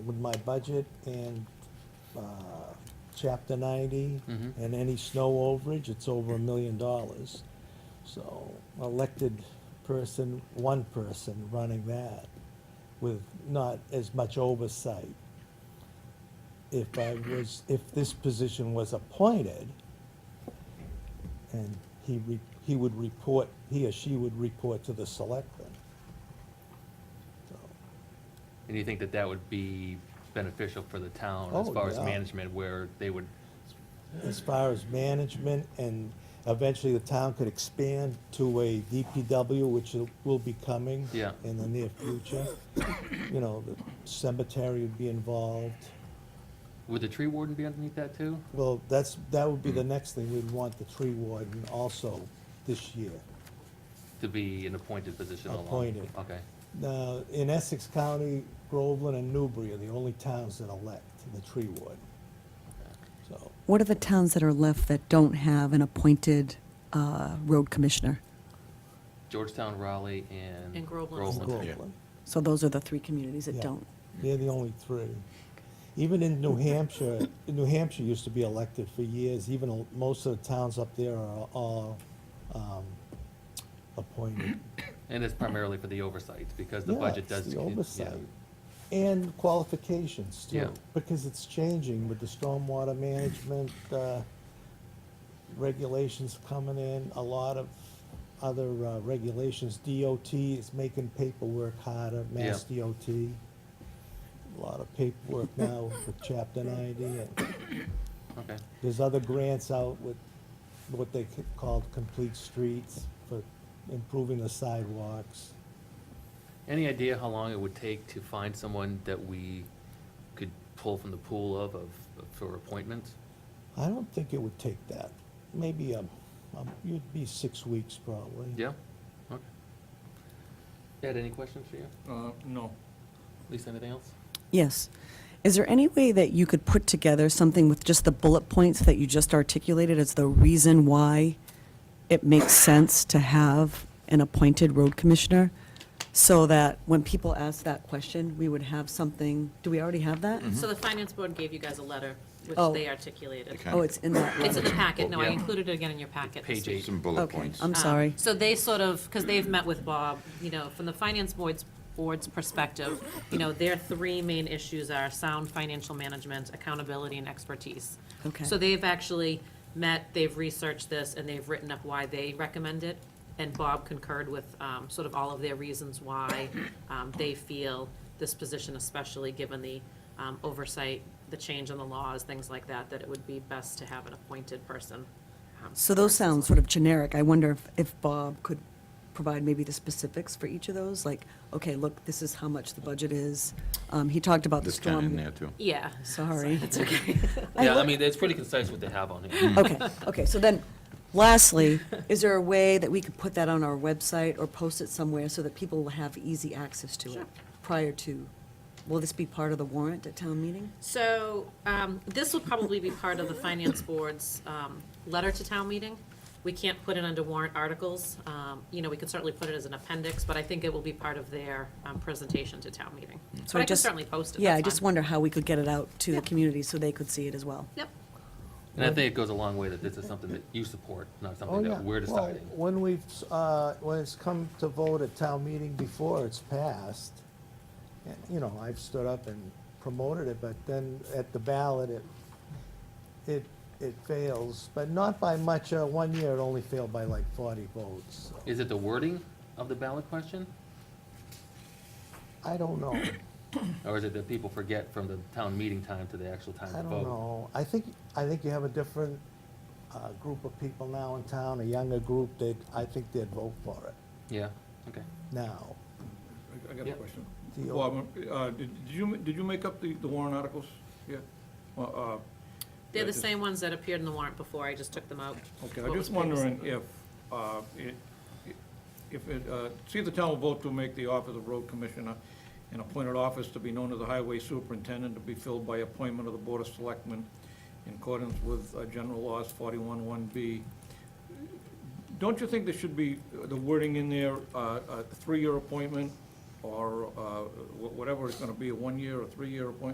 with my budget and, uh, chapter ninety, Mhm. and any snow overage, it's over a million dollars. So, elected person, one person running that with not as much oversight. If I was, if this position was appointed, and he, re- he would report, he or she would report to the selectmen. So, And you think that that would be beneficial for the town as Oh, far as yeah. management, where they would, As far as management, and eventually the town could expand to a DPW, which will be coming Yeah. in the near future. You know, the cemetery would be involved. would the tree warden be underneath that too? Well, that's, that would be the next thing, we'd want the tree warden also this year. To be an appointed position along? Appointed. Okay, Now, in Essex County, Groveland and Newbury are the only towns that elect the tree warden. So, What are the towns that are left that don't have an appointed uh, road commissioner? Georgetown, Raleigh, and? And Groveland. Groveland, So those are the three communities that Yeah. don't. they're the only three. Even in New Hampshire, New Hampshire used to be elected for years, even al- most of the towns up there are all, um, appointed. And it's primarily for the oversight, because the Yeah, budget it's does. The it- yeah. oversight. And qualifications Yeah. too, because it's changing with the stormwater management, uh, regulations coming in, a lot of other, uh, regulations. DOT is making paperwork harder, Mass Yeah. DOT. A lot of paperwork now with chapter ninety, and Okay, there's other grants out with what they ca- called complete streets for improving the sidewalks. any idea how long it would take to find someone that we could pull from the pool of, of, for appointments? I don't think it would take that. Maybe, um, um, you'd be six weeks probably. Yeah, okay. Ed, any questions for you? Uh, no. Lisa, anything else? Yes. Is there any way that you could put together something with just the bullet points that you just articulated as the reason why it makes sense to have an appointed road commissioner? So that when people ask that question, we would have something, do we already have that? Mm-hmm. So the finance board gave you guys a letter, which Oh. they articulated. Okay. Oh, it's in that It's in the letter. packet, no, I Yeah. included it again in your packet. this Page week. eight. Some bullet Okay, points. I'm Um, sorry. So they sort of, because they've met with Bob, you know, from the finance board's, board's perspective, you know, their three main issues are sound financial management, accountability, and expertise. Okay. So they've actually met, they've researched this, and they've written up why they recommend it. And Bob concurred with um, sort of all of their reasons why um, they feel this position, especially given the um, oversight, the change in the laws, things like that, that it would be best to have an appointed person. um, So those versus sound like- sort of generic. I wonder if, if Bob could provide maybe the specifics for each of those, like, okay, look, this is how much the budget is. Um, he talked about the This down in storm. there, too. Yeah. Sorry. It's okay. Yeah, I mean, it's pretty concise what they have on here. Okay, okay, so then, lastly, is there a way that we could put that on our website or post it somewhere so that people will have easy access to Sure. it? Prior to, will this be part of the warrant at town meeting? So um, this will probably be part of the finance board's um, letter to town meeting. We can't put it under warrant articles. Um, You know, we could certainly put it as an appendix, but I think it will be part of their um, presentation to town meeting. So But I I can just- certainly post it. Yeah, that's I just fine. wonder how we could get it out to the Yeah. community so they could see it as well. Yep. And I think it goes a long way that this is something that you support, not Oh, something yeah. that we're Well, deciding. When we've, uh, when it's come to vote at town meeting before it's passed, and, you know, I've stood up and promoted it, but then at the ballot, it, it, it fails, but not by much. Uh, one year, it only failed by like forty votes. so Is it the wording of the ballot question? I don't know. Or is it that people forget from the town meeting time to the actual time I to don't vote? know. I think, I think you have a different, uh, group of people now in town, a younger group that I think they'd vote for it Yeah, okay. now. I- I got Yeah. a question. The- Bob, uh, did did you, ma- did you make up the the warrant articles? Yeah? Uh, uh, They're I the just- same ones that appeared in the warrant before. I just took them out. Okay, What I'm was just wondering previously- if, uh, it- if it, uh, see if the town will vote to make the office of road commissioner an appointed office to be known as the highway superintendent to be filled by appointment of the board of selectmen in accordance with uh, general laws forty-one one B. Don't you think there should be the wording in there, uh, a three-year appointment, or uh, wh- whatever it's gonna be, a one-year or three-year appointment?